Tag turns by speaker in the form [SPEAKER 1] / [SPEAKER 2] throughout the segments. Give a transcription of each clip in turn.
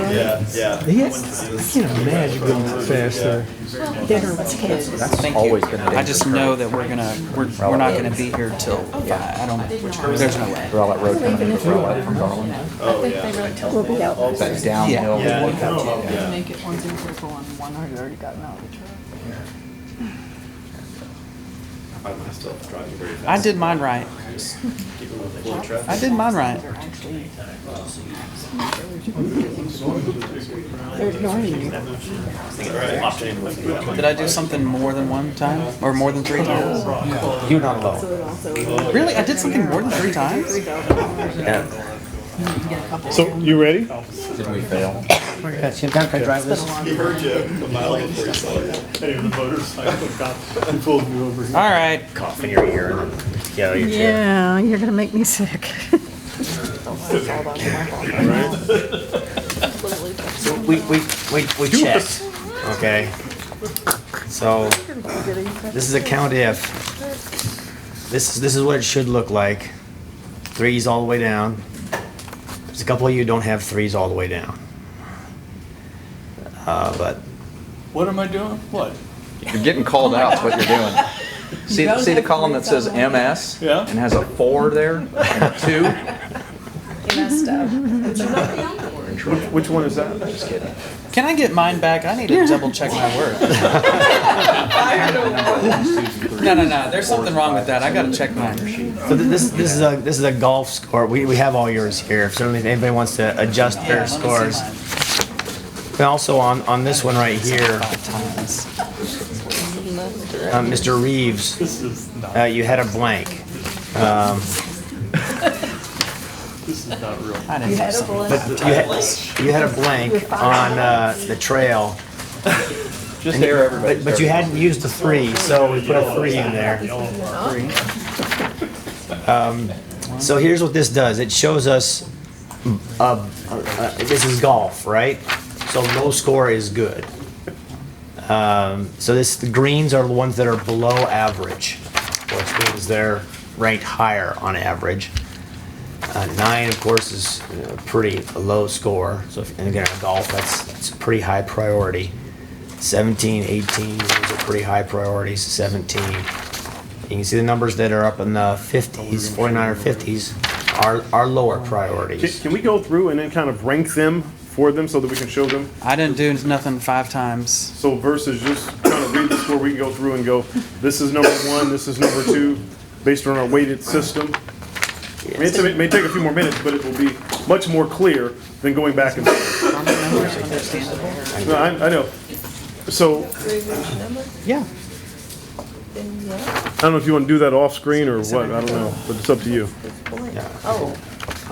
[SPEAKER 1] Yeah, yeah.
[SPEAKER 2] Yes, I can't imagine going that fast there.
[SPEAKER 3] Dinner's kids.
[SPEAKER 4] Thank
[SPEAKER 5] Always
[SPEAKER 4] you.
[SPEAKER 5] been a
[SPEAKER 4] I just
[SPEAKER 5] dangerous
[SPEAKER 4] know that we're gonna we're, we're not gonna be here till five. I don't. There's no way.
[SPEAKER 5] We're all at road coming into Rowlett from Garland.
[SPEAKER 1] Oh, yeah.
[SPEAKER 3] We'll be out.
[SPEAKER 5] It's that downhill.
[SPEAKER 4] Yeah.
[SPEAKER 5] one cut to-
[SPEAKER 1] Yeah.
[SPEAKER 6] Make it one in circle and one had already gotten out.
[SPEAKER 1] I find myself driving very fast.
[SPEAKER 4] I did mine right.
[SPEAKER 1] Just keeping with the flow of
[SPEAKER 4] I
[SPEAKER 1] traffic.
[SPEAKER 4] did mine right.
[SPEAKER 3] They're ignoring you.
[SPEAKER 1] All right.
[SPEAKER 4] Did I do something more than one time or more than three times?
[SPEAKER 5] You're not alone.
[SPEAKER 4] Really, I did something more than three times.
[SPEAKER 5] Yeah.
[SPEAKER 2] So, you ready?
[SPEAKER 5] Did we fail?
[SPEAKER 1] He heard you a mile before you saw it.
[SPEAKER 2] Hey, the motorcycle cop, he pulled me over here.
[SPEAKER 4] All right.
[SPEAKER 5] Cough in your ear and get out of your chair.
[SPEAKER 3] Yeah, you're gonna make me sick.
[SPEAKER 5] So we, we, we, we checked. Okay. So this is a count if. This is, this is what it should look like. Threes all the way down. There's a couple of you don't have threes all the way down. Uh, but
[SPEAKER 2] What am I doing? What?
[SPEAKER 7] You're getting called out, is what you're doing. See, see the column that says MS?
[SPEAKER 2] Yeah.
[SPEAKER 7] And has a four there, and a two?
[SPEAKER 2] Which one is that?
[SPEAKER 4] Can I get mine back? I need to double check my work. No, no, no. There's something wrong with that. I gotta check mine.
[SPEAKER 5] So th- this, this is a, this is a golf score. We, we have all yours here. If certainly if anybody wants to adjust
[SPEAKER 4] Yeah,
[SPEAKER 5] their
[SPEAKER 4] let me see
[SPEAKER 5] scores.
[SPEAKER 4] mine.
[SPEAKER 5] And also on, on this one right here,
[SPEAKER 4] Five times.
[SPEAKER 5] uh, Mr. Reeves,
[SPEAKER 2] This is not,
[SPEAKER 5] uh, you had a blank.
[SPEAKER 2] this is not real.
[SPEAKER 4] I didn't do something.
[SPEAKER 5] But you had, you had a blank on, uh, the trail.
[SPEAKER 7] Just there, everybody.
[SPEAKER 5] But, but you hadn't used the three, so we put a three in there. So here's what this does. It shows us, uh, uh, this is golf, right? So low score is good. Um, so this, the greens are the ones that are below average, which means they're ranked higher on average. Uh, nine, of course, is a pretty low score. So if, and again, golf, that's, that's a pretty high priority. 17, 18, those are pretty high priorities, 17. You can see the numbers that are up in the fifties, forty-nine or fifties, are, are lower
[SPEAKER 8] Can,
[SPEAKER 5] priorities.
[SPEAKER 8] can we go through and then kind of rank them for them so that we can show them?
[SPEAKER 4] I didn't do nothing five times.
[SPEAKER 8] So versus just kind of read the score, we can go through and go, this is number one, this is number two, based on our weighted system. I mean, it's- it may take a few more minutes, but it will be much more clear than going back and. forth. No, I, I know. So,
[SPEAKER 4] Yeah.
[SPEAKER 8] I don't know if you want to do that off screen or what, I don't know, but it's up to you.
[SPEAKER 2] I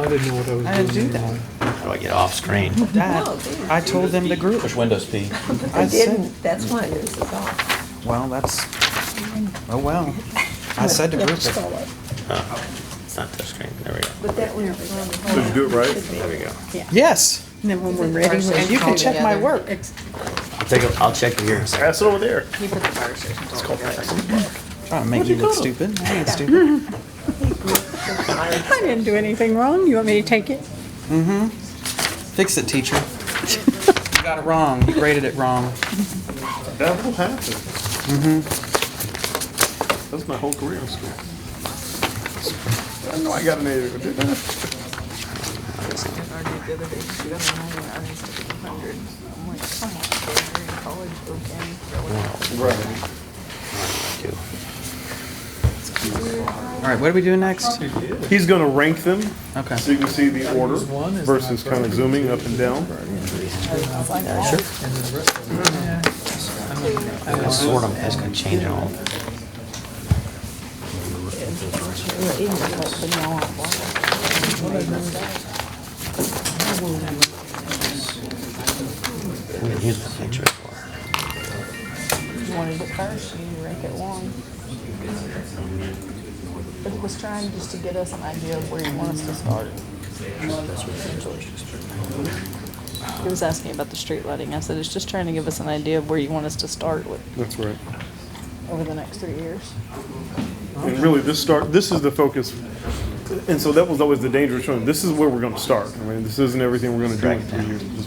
[SPEAKER 2] didn't know what I was doing.
[SPEAKER 4] I didn't do that.
[SPEAKER 5] How do I get off screen?
[SPEAKER 4] That, I told them to group.
[SPEAKER 7] Push Windows P.
[SPEAKER 4] I said,
[SPEAKER 3] Didn't, that's why yours is off.
[SPEAKER 4] well, that's, oh, well. I said to group it.
[SPEAKER 5] It's not touch screen, there we go,
[SPEAKER 3] But that one.
[SPEAKER 8] So you do it right?
[SPEAKER 5] there we go.
[SPEAKER 4] Yes.
[SPEAKER 3] And then when we're ready, we
[SPEAKER 4] And you can check my work.
[SPEAKER 5] I'll take, a- I'll check it here in a second.
[SPEAKER 8] Pass it over there.
[SPEAKER 4] Trying to make you look stupid. I ain't stupid.
[SPEAKER 3] I didn't do anything wrong. You want me to take it?
[SPEAKER 4] Fix it, teacher. You got it wrong. You graded it wrong.
[SPEAKER 8] That will happen. Mm-hmm. That's my whole career in school. I know I got an A, but didn't I?
[SPEAKER 5] Two.
[SPEAKER 4] All right, what are we doing next?
[SPEAKER 8] He's gonna rank them,
[SPEAKER 4] Okay.
[SPEAKER 8] so you can see the order versus kind of zooming up and down.
[SPEAKER 5] I'll Sort them, that's gonna change it all. We can use the picture for-
[SPEAKER 6] You wanted it first, you rank it one. But it was trying just to get us an idea of where you want us to start. He was asking about the street lighting. I said, it's just trying to give us an idea of where you want us to start with
[SPEAKER 8] That's right.
[SPEAKER 6] over the next three years.
[SPEAKER 8] And really, this start, this is the focus, and so that was always the dangerous one. This is where we're gonna start. I mean, this isn't everything we're gonna do in three years.